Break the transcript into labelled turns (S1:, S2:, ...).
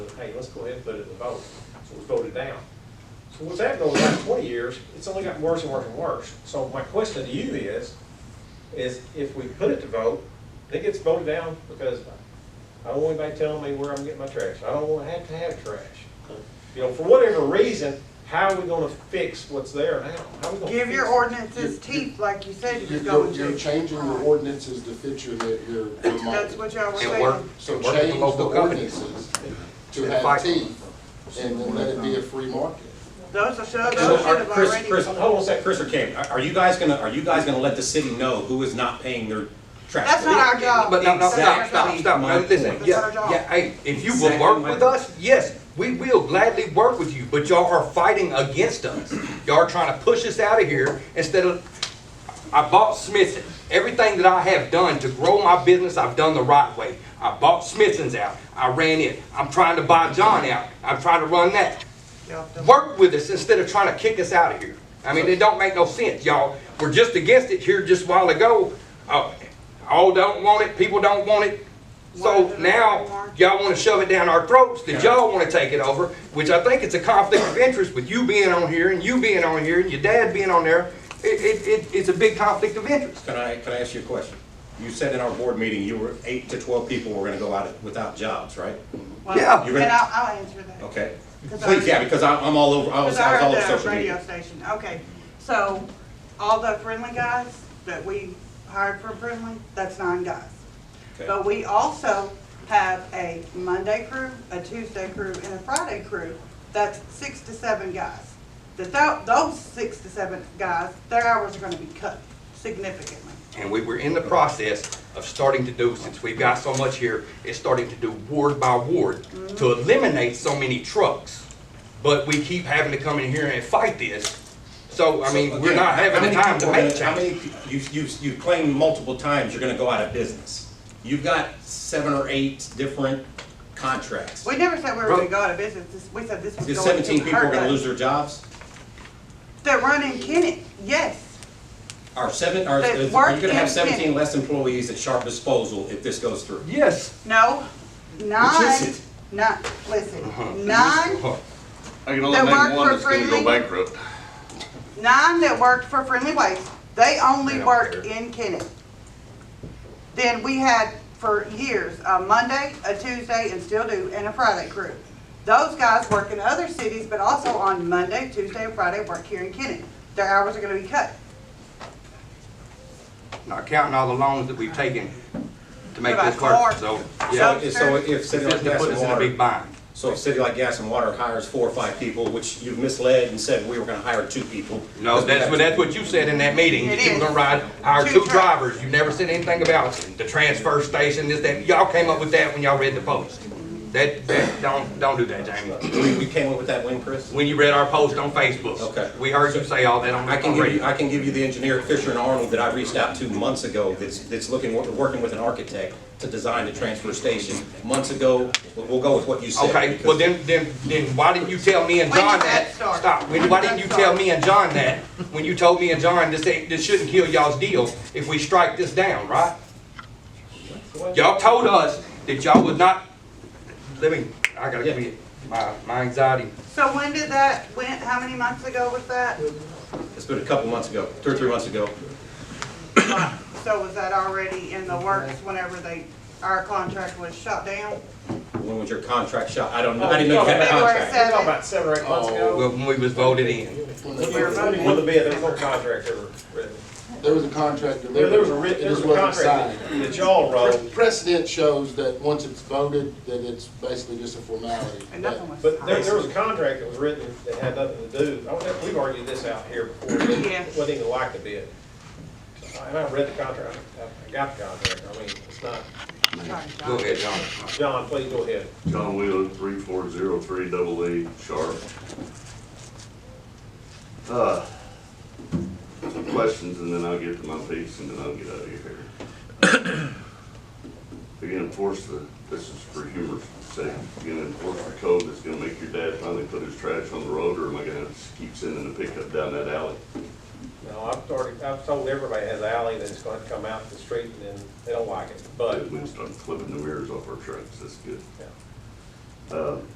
S1: hey, let's go ahead and put it in the vote. So it was voted down. So with that going on twenty years, it's only gotten worse and worse and worse. So my question to you is, is if we put it to vote, it gets voted down because I don't want anybody telling me where I'm getting my trash. I don't wanna have to have trash. You know, for whatever reason, how are we gonna fix what's there now? How are we gonna
S2: Give your
S1: fix it?
S2: ordinances teeth like you said you
S3: You're,
S2: was
S3: you're-
S2: going to.
S3: you're changing your ordinances to fit your, your your
S2: That's
S3: model.
S2: what y'all were
S4: It worked.
S2: saying.
S3: So
S4: Work with
S3: change the
S4: local companies.
S3: ordinances to
S4: And
S3: have
S4: fight.
S3: teeth, and then let it be a free market.
S2: Those are, sure,
S5: So,
S2: those
S4: uh,
S2: should
S5: are-
S2: have
S5: Chris,
S2: already.
S5: Chris, hold on a sec, Chris or Kim, are- are you guys gonna, are you guys gonna let the city know who is not paying their trash?
S2: That's
S5: bill?
S2: not our job.
S4: But no, no, stop, stop,
S2: Exactly.
S4: stop, no, listen,
S2: That's
S4: yeah,
S2: our job.
S4: yeah, hey, if you will work with us, yes, we will gladly work with you, but y'all are fighting against us. Y'all are trying to push us out of here instead of, I bought Smithson. Everything that I have done to grow my business, I've done the right way. I bought Smithson's out, I ran it, I'm trying to buy John out, I'm trying to run that.
S2: Y'all done-
S4: Work with us instead of trying to kick us out of here. I mean, it don't make no sense, y'all. We're just against it here just a while ago. Uh, All don't want it, people don't want it. So now, y'all wanna shove it down our throats, that y'all wanna take it over, which I think it's a conflict of interest with you being on here and you being on here and your dad being on there. It, it, it, it's a big conflict of interest.
S5: Can I, can I ask you a question? You said in our board meeting, you were, eight to twelve people were gonna go out without jobs, right?
S2: Well,
S4: Yeah.
S5: You're
S2: And
S5: gonna-
S2: I'll, I'll answer that.
S5: Okay.
S2: Mm-hmm. Because
S5: Please,
S2: I-
S5: yeah, because I'm, I'm all over, I was,
S2: Because
S5: I
S2: I
S5: Oh,
S2: heard
S5: was all over
S2: that
S5: social
S2: radio
S5: media.
S2: station, okay. So, all the friendly guys that we hired for friendly, that's nine guys.
S5: Okay.
S2: But we also have a Monday crew, a Tuesday crew, and a Friday crew, that's six to seven guys. That tho- those six to seven guys, their hours are gonna be cut significantly.
S4: And we were in the process of starting to do, since we've got so much here, is starting to do ward by ward to eliminate so many trucks. But we keep having to come in here and fight this. So, I mean, we're not having the time to make
S5: How
S4: change.
S5: many, you, you, you claim multiple times you're gonna go out of business. You've got seven or eight different contracts.
S2: We never said we were gonna
S4: Bro-
S2: go out of business, This- we said this was
S5: Is
S2: going
S5: seventeen
S2: to
S5: people are
S2: hurt
S5: gonna lose
S2: us.
S5: their jobs?
S2: They're running Kennet, yes.
S5: Are seven, are,
S2: That
S5: is- are
S2: work
S5: you gonna have
S2: is pending.
S5: seventeen less employees at Sharp Disposal if this goes through?
S4: Yes.
S2: No, nine,
S5: it?
S2: nine,
S4: Uh-huh.
S2: listen, nine,
S6: I can
S2: That
S6: only
S2: work
S6: name one
S2: for
S6: that's gonna
S2: freely?
S6: go bankrupt.
S2: nine that worked for Friendly Waste, they
S4: They
S2: only
S4: don't
S2: worked
S4: care.
S2: in Kennet. Then we had for years, a Monday, a Tuesday, and still do, and a Friday crew. Those guys work in other cities, but also on Monday, Tuesday, and Friday, work here in Kennet. Their hours are gonna be cut.
S4: Not counting all the loans that we've taken to make
S2: What
S4: this
S2: about
S4: work,
S2: cars?
S4: so,
S5: So,
S4: yeah.
S5: if- so if
S4: It's
S5: City
S4: just
S5: Like
S4: to
S5: Gas
S4: put us
S5: and
S4: in a big
S5: Water,
S4: bind.
S5: so if City Like Gas and Water hires four or five people, which you've misled and said we were gonna hire two people.
S4: No, that's what, that's what you said in that meeting,
S2: It
S4: that you were
S2: is.
S4: gonna ride our
S2: Two
S4: two
S2: trucks.
S4: drivers, you never said anything about the transfer station, this, that, y'all came up with that when y'all read the post. That, that, don't, don't do that, Jamie.
S5: We, we came up with that when, Chris?
S4: When you read our post on Facebook.
S5: Okay.
S4: We heard you say all that on,
S5: I
S4: on
S5: can give you,
S4: radio.
S5: I can give you the engineer at Fisher and Arnold that I reached out to months ago that's, that's looking, working with an architect to design the transfer station months ago. But We'll go with what you said.
S4: Okay, well
S5: because-
S4: then, then, then why didn't you tell me and
S2: When did
S4: John
S2: that
S4: that?
S2: start?
S4: Stop, When- why didn't you tell me and John that, when you told me and John this, ain't- this shouldn't kill y'all's deal if we strike this down, right? Y'all told us that y'all would not, let me, I gotta
S5: Yeah.
S4: quit, my, my anxiety.
S2: So when did that, when, how many months ago was that?
S5: It's been a couple months ago, two or three months ago.
S2: So was that already in the works whenever they, our contract was shut down?
S5: When was your contract shot? I don't know, I didn't know you had a
S2: February
S5: contract.
S1: We're talking
S2: seventh.
S1: about seven or eight months ago.
S4: Oh, Well, when we was voted in.
S1: When we were voting on the bid, there was no contract ever written.
S3: There was a contract
S1: There, there was a
S3: delivered.
S1: writ,
S3: It
S1: there was
S3: just
S1: a
S3: wasn't
S1: contract
S3: signed.
S1: that y'all wrote,
S3: Pre- Precedent shows that once it's voted, that it's basically just a formality.
S2: And nothing was.
S1: but there,
S2: signed.
S1: there was a contract that was written that had nothing to do, I don't, we've argued this out here before, we
S2: Yeah.
S1: didn't even like the bid. And I read the contract, I- I got the contract, I mean, it's not,
S2: Sorry, John.
S4: Go ahead, John.
S1: John, please go ahead.
S6: John Wheeler, three four zero three double E sharp. Uh, some questions and then I'll get to my piece and then I'll get out of here. You're gonna enforce the, this is for humor's sake, you're gonna enforce the code that's gonna make your dad finally put his trash on the road or am I gonna keep sending a pickup down that alley?
S1: No, I've started, I've told everybody has alley that it's gonna come out the street and then they don't like it, but
S6: We can start flipping the mirrors off our trucks, that's good.
S1: Yeah.
S6: Um,